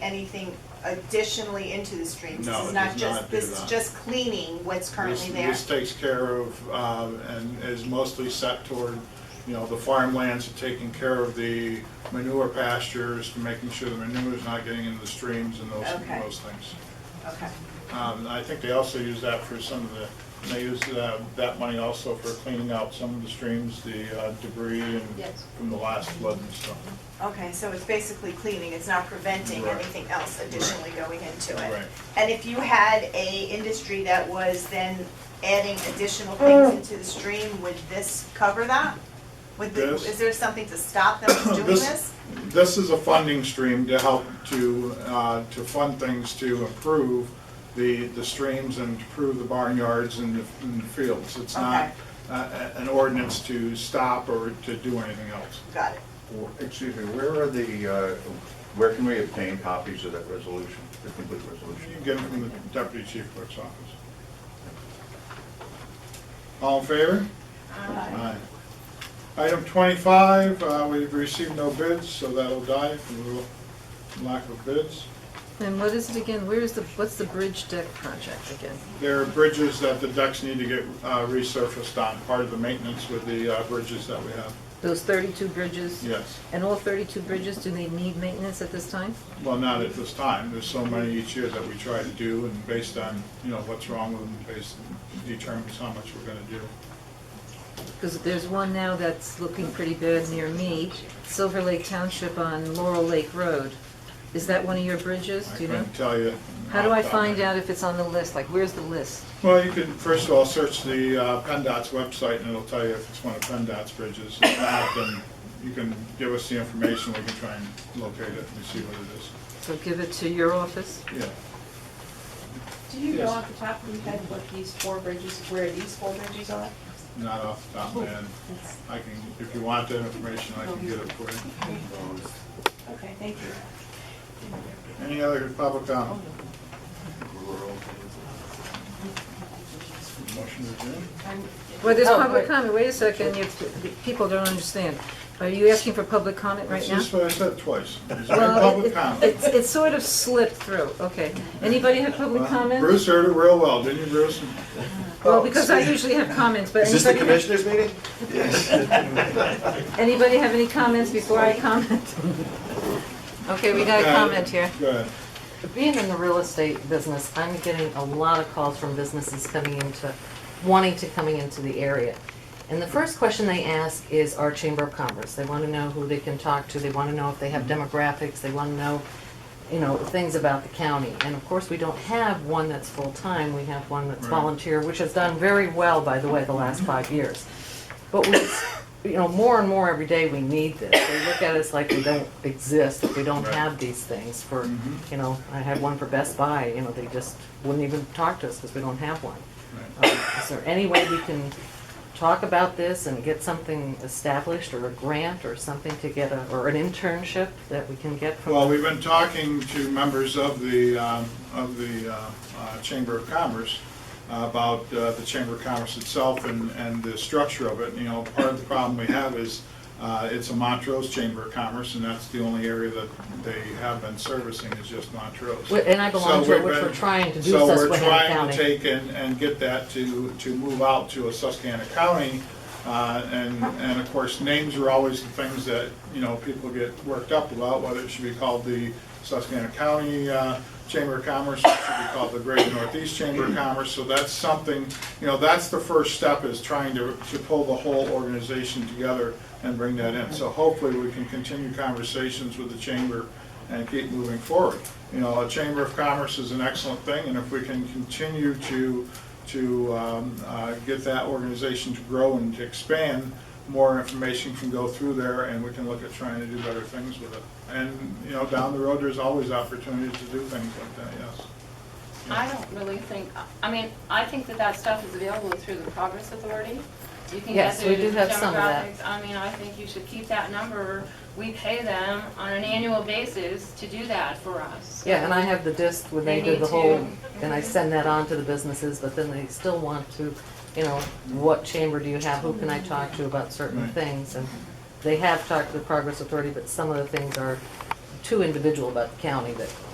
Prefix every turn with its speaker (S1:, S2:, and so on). S1: anything additionally into the stream.
S2: No,
S1: This is
S2: it
S1: not
S2: does
S1: just,
S2: not do
S1: this is
S2: that.
S1: just cleaning what's currently
S2: This-
S1: there.
S2: This takes care of, uh, and is mostly set toward, you know, the farmlands, taking care of the manure pastures, making sure the manure is not getting into the streams and those,
S1: Okay.
S2: those things.
S1: Okay,
S2: Um, I think they also use that for some of the, they use uh, that money also for cleaning out some of the streams, the uh, debris and
S1: Yes.
S2: from the last flood and stuff.
S1: okay, so it's basically cleaning, it's not preventing
S2: Right.
S1: anything else additionally going into it.
S2: Right.
S1: And if you had a industry that was then adding additional things into the stream, would this cover that? Would, the-
S2: This-
S1: is there something to stop them from doing
S2: This-
S1: this?
S2: This is a funding stream to help to, uh, to fund things to improve the, the streams and improve the barnyards and the and the fields. It's not
S1: Okay.
S2: uh, a- an ordinance to stop or to do anything else.
S1: Got it.
S3: Well, Excuse me, where are the, uh, where can we obtain copies of that resolution, the complete
S2: You
S3: resolution?
S2: get it from the deputy chief clerk's office. All in favor? Aye. Item 25, uh, we've received no bids, so that'll die from the lack of bids.
S4: And what is it again? Where is the, what's the bridge deck project again?
S2: There are bridges that the decks need to get uh, resurfaced on, part of the maintenance with the uh, bridges that we have.
S4: Those thirty-two bridges?
S2: Yes,
S4: And all thirty-two bridges, do they need maintenance at this time?
S2: well, not at this time, there's so many each year that we try to do, and based on, you know, what's wrong with them, based, determines how much we're gonna do.
S4: Because there's one now that's looking pretty bad near me, Silver Lake Township on Laurel Lake Road. Is that one of your bridges?
S2: I
S4: Do you know?
S2: couldn't tell you.
S4: How do I
S2: off the top of my
S4: find
S2: head.
S4: out if it's on the list? Like, where's the list?
S2: Well, you can, first of all, search the uh, PennDOT's website, and it'll tell you if it's one of PennDOT's bridges. If not, then you can give us the information, we can try and locate it and see what it
S4: So give it to your office?
S2: is. Yeah.
S5: Do you know
S2: Yes.
S5: off the top of your head what these four bridges, where these four bridges are?
S2: Not off the top of my head. I can, if you want that information, I can get it for you.
S5: Okay, thank you.
S2: Any other public comment? Motion to adjourn?
S4: Well, there's
S5: Oh,
S4: public
S5: wait.
S4: comment. Wait a second. You- the People don't understand. Are you asking for public comment right
S2: That's
S4: now?
S2: just what I said twice. Is there any
S4: Well,
S2: public
S4: it-
S2: comment?
S4: it's, it's sort of slipped through. Okay. Anybody have public comment?
S2: Uh-huh. Bruce heard it real well, didn't you, Bruce?
S4: Well, because I usually have comments, but
S6: Is this the
S4: anybody, have-
S6: commissioners' meeting?
S4: anybody have any comments before I comment? Okay, we got a
S2: Okay,
S4: comment here.
S2: Go ahead.
S7: Being in the real estate business, I'm getting a lot of calls from businesses coming into, wanting to coming into the area. And the first question they ask is our Chamber of Commerce. They want to know who they can talk to, they want to know if they have demographics, they want to know, you know, things about the county. And of course, we don't have one that's full-time, we have one that's
S2: Right.
S7: volunteer, which has done very well, by the way, the last five years. But we, you know, more and more every day, we need this. They look at us like we don't exist, that we don't
S2: Right. Mm-hmm.
S7: have these things for, you know, I had one for Best Buy, you know, they just wouldn't even talk to us because we don't have one.
S2: Right.
S7: Um, Is there any way we can talk about this and get something established or a grant or something to get a, or an internship that we can get from?
S2: Well, we've been talking to members of the, um, of the uh, uh, Chamber of Commerce about uh, the Chamber of Commerce itself and, and the structure of it. You know, part of the problem we have is uh, it's a Montrose Chamber of Commerce, and that's the only area that they have been servicing is just Montrose.
S7: Wh- And I
S2: So
S7: belong
S2: we've
S7: to it, which we're
S2: been-
S7: trying to do
S2: So we're
S7: Susquehanna
S2: trying to
S7: County.
S2: take and, and get that to, to move out to a Susquehanna County. Uh, and, and of course, names are always the things that, you know, people get worked up about, whether it should be called the Susquehanna County, uh, Chamber of Commerce, or it should be called the Great Northeast Chamber of Commerce. So that's something, you know, that's the first step is trying to, to pull the whole organization together and bring that in. So hopefully we can continue conversations with the chamber and keep moving forward. You know, a Chamber of Commerce is an excellent thing, and if we can continue to, to um, uh, get that organization to grow and to expand, more information can go through there, and we can look at trying to do better things with it. And, you know, down the road, there's always opportunities to do things like that, yes.
S5: I don't really think, I mean, I think that that stuff is available through the Progress Authority. You can get
S7: Yes,
S5: their
S7: we do have some of that.
S5: demographics. I mean, I think you should keep that number. We pay them on an annual basis to do that for us.
S7: Yeah, and I have the disc when
S5: They
S7: they did
S5: need
S7: the whole,
S5: to-
S7: and I send that on to the businesses, but then they still want to, you know, what chamber do you have, who can I talk to about certain
S2: Right.
S7: things? And they have talked to the Progress Authority, but some of the things are too individual about the county that